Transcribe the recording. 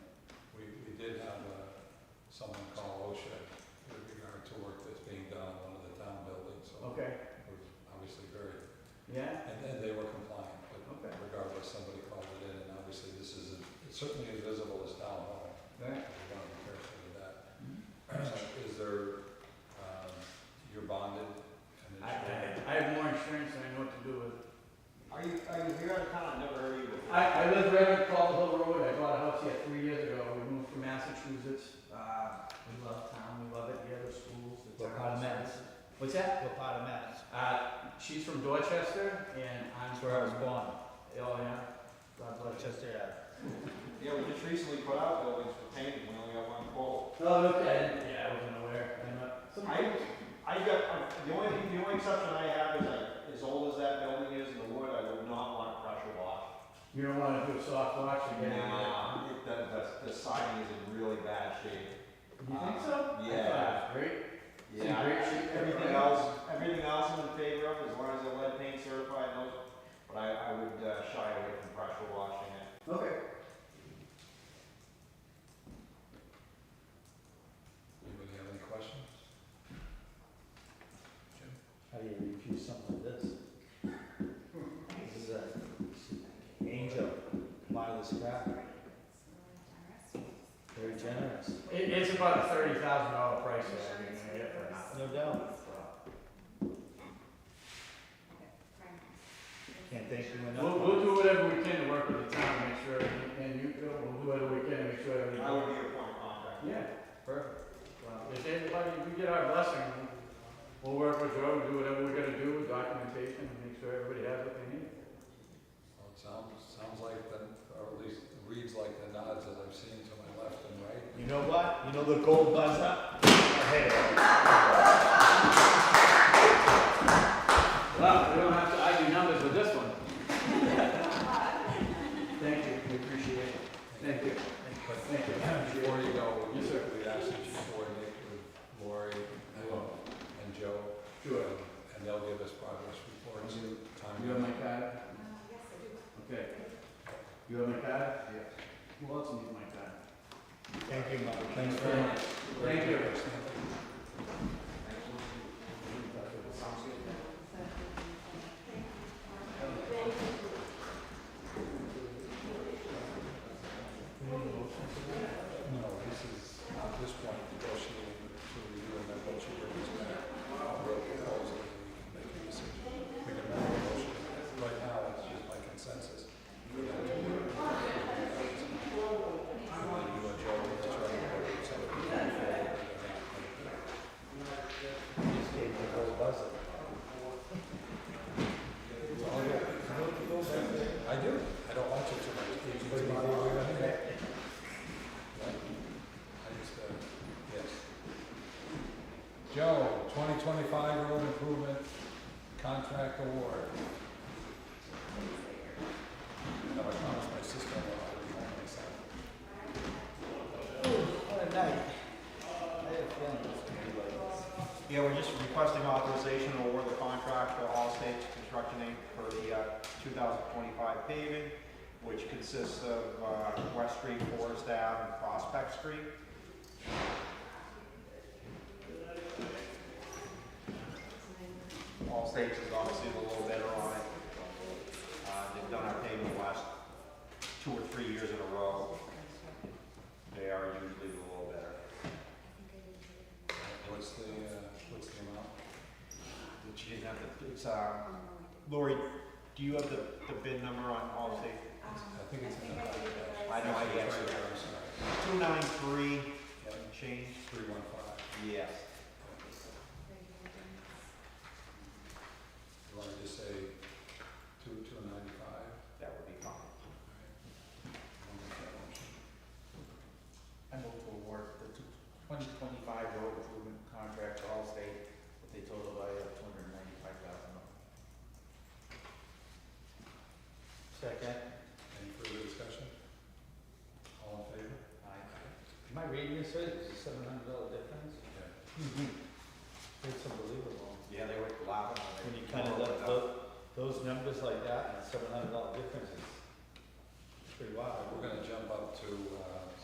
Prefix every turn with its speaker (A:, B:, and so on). A: uh, someone call OSHA with regard to work that's being done on one of the town buildings, so
B: Okay,
A: we're obviously very,
B: yeah,
A: and then they were compliant, but
B: okay.
A: regardless, somebody called it in, and obviously this is, it's certainly as visible as town hall.
B: Right.
A: We want to be careful with that.
B: Mm-hmm.
A: Is there, um, you're bonded and
B: I, I,
A: insured?
B: I have more insurance than I know what to do with.
C: Are you, are you here on town? I've never heard of you before.
B: I, I live right on Cobble Hill Road, I bought a house here three years ago, we moved from Massachusetts. Uh, we love town, we love it, we have the schools, the
D: What part of
B: towns.
D: Mass?
B: What's that?
D: What part of Mass?
B: Uh, she's from Dorchester, and I'm
D: That's
B: from.
D: where I was born,
B: Oh, yeah, God bless you.
D: Rochester Ave.
C: Yeah, we just recently put out buildings for painting, we only got one pole.
B: Oh, okay, yeah, I wasn't aware, I'm not. some-
C: I, I got, I- the only, the only exception I have is like, as old as that building is in the wood, I would not want to pressure wash.
B: You don't wanna do a soft watch again?
C: Nah, it, the, the, the siding is in really bad shape.
B: You think so? I thought
C: Yeah.
B: it was Great. It's in
C: Yeah,
B: great shape,
C: everything
B: right?
C: else, everything else I'm in favor of, as long as the lead paint certified, and those, but I, I would uh, shy away from pressure washing it.
B: Okay.
A: Anybody have any questions?
D: How do you refuse something like this? This is an angel, part of this crap, very generous,
B: It, it's about a thirty thousand dollar price that I can get for nothing.
D: no doubt. Can't thank you
B: We'll,
D: enough.
B: we'll do whatever we can to work with the town, to make sure, everything- and you, Bill, we'll do whatever we can to make sure everything.
C: I would be a point of contact.
B: Yeah, perfect. Well, If anybody, if we get our blessing, we'll work with Joe, do whatever we're gonna do with documentation, and make sure everybody has what they need.
A: Well, it sounds, sounds like the, or at least reads like the nods that I've seen to my left and right.
D: You know what, you know the gold buzz up? I hate it.
B: Well, we don't have to argue numbers with this one. Thank you, we appreciate it. Thank you.
A: But
B: Thank you.
A: Before you go,
B: Yes, sir.
A: we ask that you coordinate with Lori and Joe,
B: Sure.
A: and they'll give us progress reports.
B: You
A: Time.
B: you have my card? Okay. You have my card? Yes. Who else needs my card?
D: Thank you, Mom, thanks very much.
B: Thank you.
A: No, this is, at this point, negotiating to review and then once you bring this back, I'll write the proposal and we can make a decision. We can make a motion. Right now, it's just by consensus. You know, to do it. You and Joe, let's try to work it so that we can move forward.
D: Just gave the gold buzz up.
A: I do. I don't watch it too much. It's my- I just, uh, yes. Joe, twenty twenty-five road improvement contract award. No, I promised my sister I would remind myself.
D: What a night. I had a feeling it was gonna be like this.
C: Yeah, we're just requesting authorization to award the contract to Allstate Construction Inc. for the uh, 2025 paving, which consists of uh, West Street, Forest Ave, and Prospect Street. Allstate is obviously a little better on it. Uh, They've done our paving the last two or three years in a row. They are usually a little better.
A: What's the, uh, what's the amount?
C: That you didn't have the, it's, um, Lori, do you have the, the bid number on Allstate?
A: I think it's in the contract.
C: I know, I
A: It's
C: guess.
A: right there, I'm sorry.
C: Two nine three
A: Yeah,
C: change?
A: three one five.
C: Yes.
A: You want to just say two, two ninety-five?
C: That would be fine.
D: I move to award the 2025 road improvement contract to Allstate with a total value of $295,000. Second.
A: Any further discussion? All in favor?
D: Am I reading this right? It's a $700 difference?
A: Yeah.
D: Mm-hmm. It's unbelievable.
C: Yeah, they were laughing when
D: When
C: they.
D: you kind of
C: come up
D: look,
C: with
D: those, those numbers like that and $700 difference is pretty wild.
A: We're gonna jump up to, uh,